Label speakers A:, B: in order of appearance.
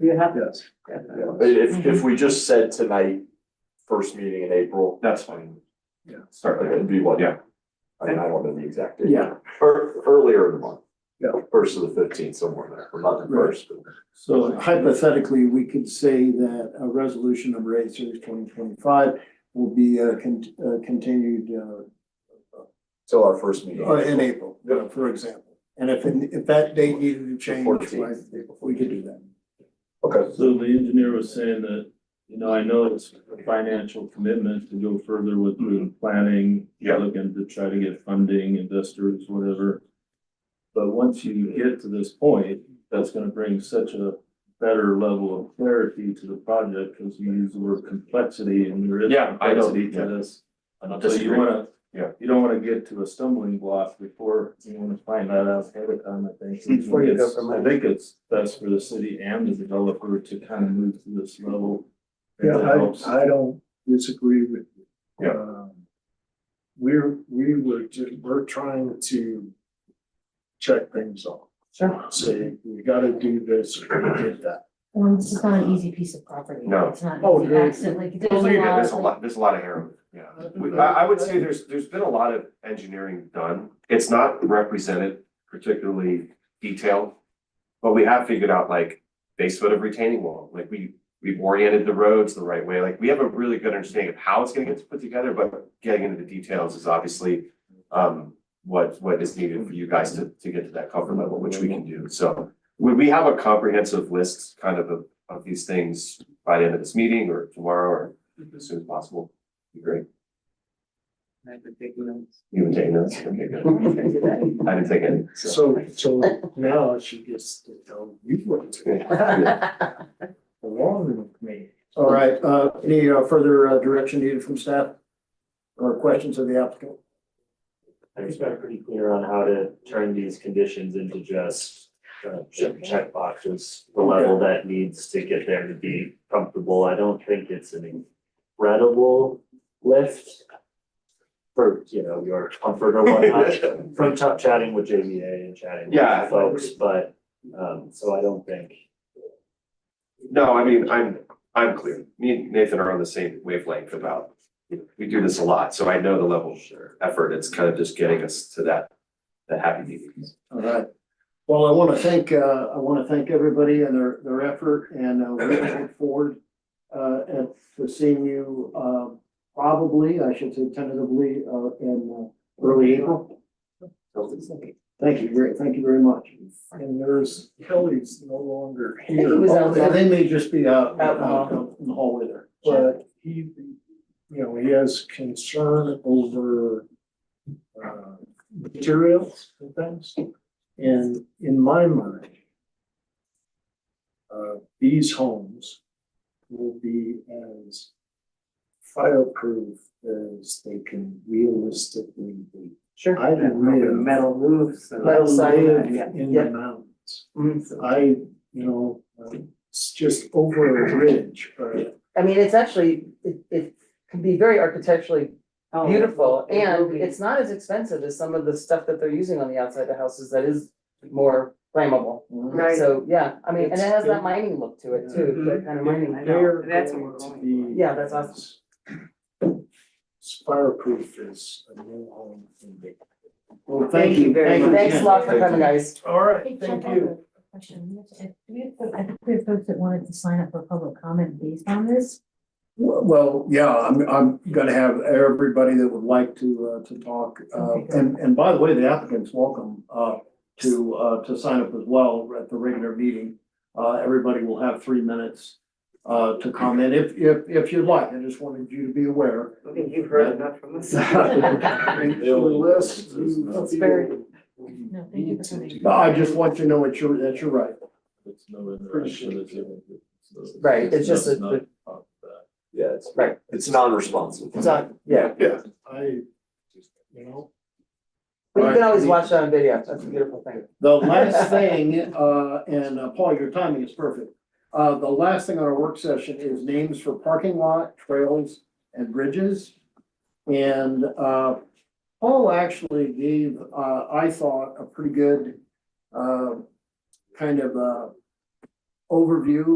A: You have
B: Yes,
A: to.
B: yeah,
C: If,
B: Mm-hmm.
C: if we just said tonight, first meeting in April,
D: That's fine.
B: Yeah.
D: Start
C: like,
D: there.
C: it'd be what?
D: Yeah.
C: I mean, I don't know the exact date.
A: Yeah.
C: Ear- earlier in the month.
B: Yeah.
C: First of the fifteenth, somewhere in there, or not the first, but
E: So hypothetically, we could say that a resolution number eight series twenty twenty-five will be uh, con- uh, continued uh,
C: till our first meeting.
B: Oh,
E: uh, in April, uh, for example. And if, if that date needed to change, why, we could do that.
C: Okay,
F: So the engineer was saying that, you know, I know it's a financial commitment to go further with route planning.
D: Yeah.
F: Looking to try to get funding, investors, whatever. But once you get to this point, that's gonna bring such a better level of clarity to the project, because you use the word complexity and there is
D: Yeah, I know,
F: complexity to
D: yeah.
F: this.
D: I don't
F: So you
D: disagree.
F: wanna,
D: Yeah.
F: you don't wanna get to a stumbling block before you wanna find that out ahead of time, I think.
A: Before you go from
F: I think it's best for the city and the developer to kind of move to this level.
B: yeah,
F: That helps.
B: I, I don't disagree with you.
D: Yeah.
B: Um, We're, we were, ju- we're trying to check things off,
A: Sure.
B: say, we gotta do this, or we did that.
G: Well, this is not an easy piece of property.
D: No.
G: It's not
B: Oh,
G: an easy
B: no.
G: accent, like
D: Well,
G: there's
D: look at that,
G: a
D: There's a
G: lot,
D: lot, there's a lot of error, yeah. We- I, I would say there's, there's been a lot of engineering done. It's not represented particularly detailed. But we have figured out like base foot of retaining wall, like we, we've oriented the roads the right way, like we have a really good understanding of how it's gonna get put together, but getting into the details is obviously um, what, what is needed for you guys to, to get to that comfort level, which we can do. So we, we have a comprehensive list kind of of, of these things by the end of this meeting or tomorrow or as soon as possible. Be great.
A: I've been taking notes.
D: You and Dana, okay, good. I didn't take any. so.
B: So, so now she gets to tell you what to do, along with me.
E: All right, uh, any uh, further uh, direction needed from staff? Or questions of the applicant?
H: I just got pretty clear on how to turn these conditions into just uh, check check boxes, the level that needs to get there to be comfortable. I don't think it's an incredible lift for, you know, your comfort or whatnot, from ch- chatting with JVA and chatting
D: Yeah.
H: with folks, but um, so I don't think
D: No, I mean, I'm, I'm clear. Me and Nathan are on the same wavelength about, you know, we do this a lot, so I know the level of effort. It's kind of just getting us to that, that happy medium.
E: All right. Well, I want to thank, uh, I want to thank everybody and their, their effort and uh, we look forward uh, at, to seeing you, uh, probably, I should say tentatively, uh, in uh, early April. Thank you, very- thank you very much.
B: And there's, Kelly's no longer
A: I think he
B: here,
A: was out
E: Yeah,
A: there.
E: They may just be out,
A: Out.
E: out in the hallway there.
B: but he, you know, he has concern over uh, materials and things. And in my mind, uh, these homes will be as fireproof as they can realistically be.
A: Sure.
B: I live-
A: Metal roofs and.
B: I live
A: Yeah,
B: in
A: yeah.
B: the mountains.
A: Mm, so-
B: I, you know, um, it's just over a ridge, but
I: I mean, it's actually, it, it can be very architecturally
A: Oh,
I: beautiful,
A: it will
I: and
A: be.
I: it's not as expensive as some of the stuff that they're using on the outside of houses that is more flammable.
A: Right.
I: So, yeah, I mean, and it
B: It's
I: has
B: good.
I: that mining look to it too,
A: Mhm.
I: that kind of mining.
A: know.
B: they're
A: That's what
B: going
A: we're
B: to
A: going
B: be.
I: for. Yeah, that's awesome.
B: It's Fireproof is a new home in Dayton.
E: Well, thank you.
A: very much.
I: Thanks a lot for
D: Thank you.
I: coming, guys.
B: All right,
G: Mm-hmm. Hey,
B: thank
G: check out
B: you.
G: the question. We have to- do we have to- I think we have folks that wanted to sign up for public comment based on this.
E: Well, yeah, I'm, I'm gonna have everybody that would like to, uh, to talk, uh, and, and by the way, the applicant's welcome, uh, to, uh, to sign up as well at the regular meeting. Uh, everybody will have three minutes, uh, to comment if, if, if you'd like. I just wanted you to be aware.
A: I think you've heard enough from us.
B: Thank you, Liz.
I: That's very-
G: No, thank you for coming.
E: No, I just want you to know what you're, that you're right.
F: It's no interaction. it's no- it's
I: Right, it's just a-
F: not about that.
C: yeah, it's,
I: Right.
C: it's non-responsive.
I: So, yeah,
B: I, you know,
I: but you can always watch that on video, that's a beautiful thing.
E: The last thing, uh, and uh, Paul, your timing is perfect. Uh, the last thing on our work session is names for parking lot, trails and bridges. And, uh, Paul actually gave, uh, I thought, a pretty good, uh, kind of, uh, overview